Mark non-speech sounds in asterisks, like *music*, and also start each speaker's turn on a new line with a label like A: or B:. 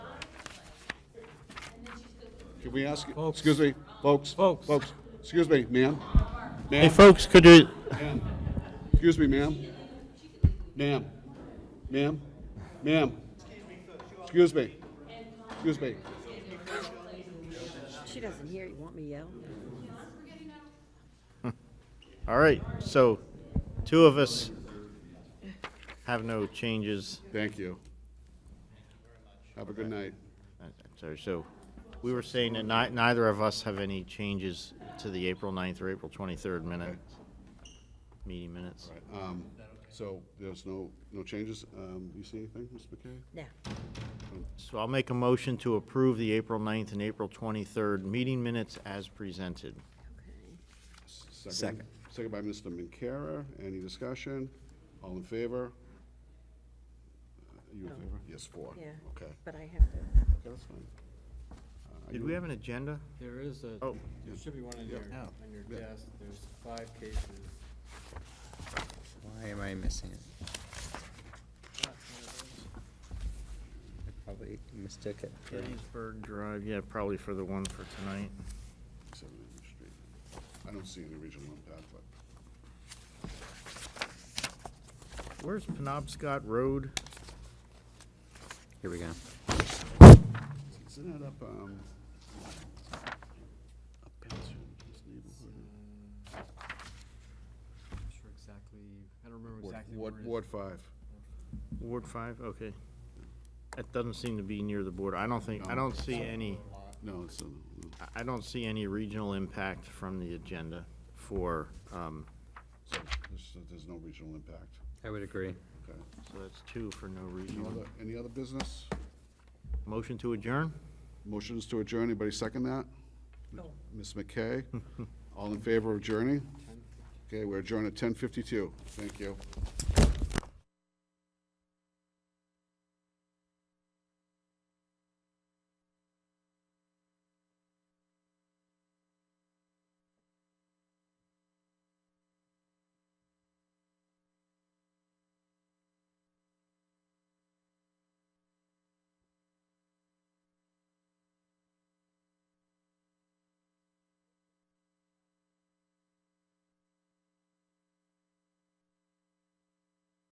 A: Can we ask,
B: Folks.
A: excuse me, folks?
B: Folks.
A: Folks, excuse me, ma'am?
C: Hey,
A: Ma'am,
C: folks, could you,
A: ma'am, excuse me, ma'am? Ma'am, ma'am, ma'am? Excuse me, excuse me.
D: She doesn't hear you. Want me to yell?
C: all right, so two of us have no changes.
A: Thank you. Have a good night.
C: Uh, I'm Sorry, so we were saying that ni- neither of us have any changes to the April 9th or April 23rd minute, meeting minutes.
A: Um, So there's no, no changes? Um, You see anything, Mr. McKay?
D: No.
C: So I'll make a motion to approve the April 9th and April 23rd meeting minutes as presented.
A: Second. Second by Mr. Minkara. Any discussion? All in favor? Are you in favor? Yes, four.
D: Yeah.
A: Okay.
D: But I have to.
A: Okay, that's fine. Uh, are
C: Did
A: you-
C: we have an agenda?
B: There is a,
C: Oh.
B: there should be one on your, on your
A: Yeah.
B: desk. There's five cases.
E: Why am I missing it? I probably mistook it. for-
C: Gettysburg Drive, yeah, probably for the one for tonight.
A: Seven Main Street. I don't see any regional impact, but
C: Where's Penobscot Road?
E: Here we go.
A: isn't it up, um, up Batsfield, this neighborhood?
B: Mm, I'm not sure exactly, I don't remember
A: Ward-
B: exactly where it
A: Ward,
B: is.
A: Ward five.
C: Ward 5, okay. That doesn't seem to be near the border. I don't think, I don't see any,
A: No, it's, uh, no.
C: I- I don't see any regional impact from the agenda for, um,
A: So there's, uh, there's no regional impact.
E: I would agree.
A: Okay.
C: so that's two for no
A: Any
C: regional.
A: other, any other business?
C: Motion to adjourn?
A: Motions to adjourn, anybody second that?
D: No.
A: Ms.
B: *laughs*
A: McKay? All in favor of adjourning? Okay, we're adjourned at ten fifty-two. Thank you.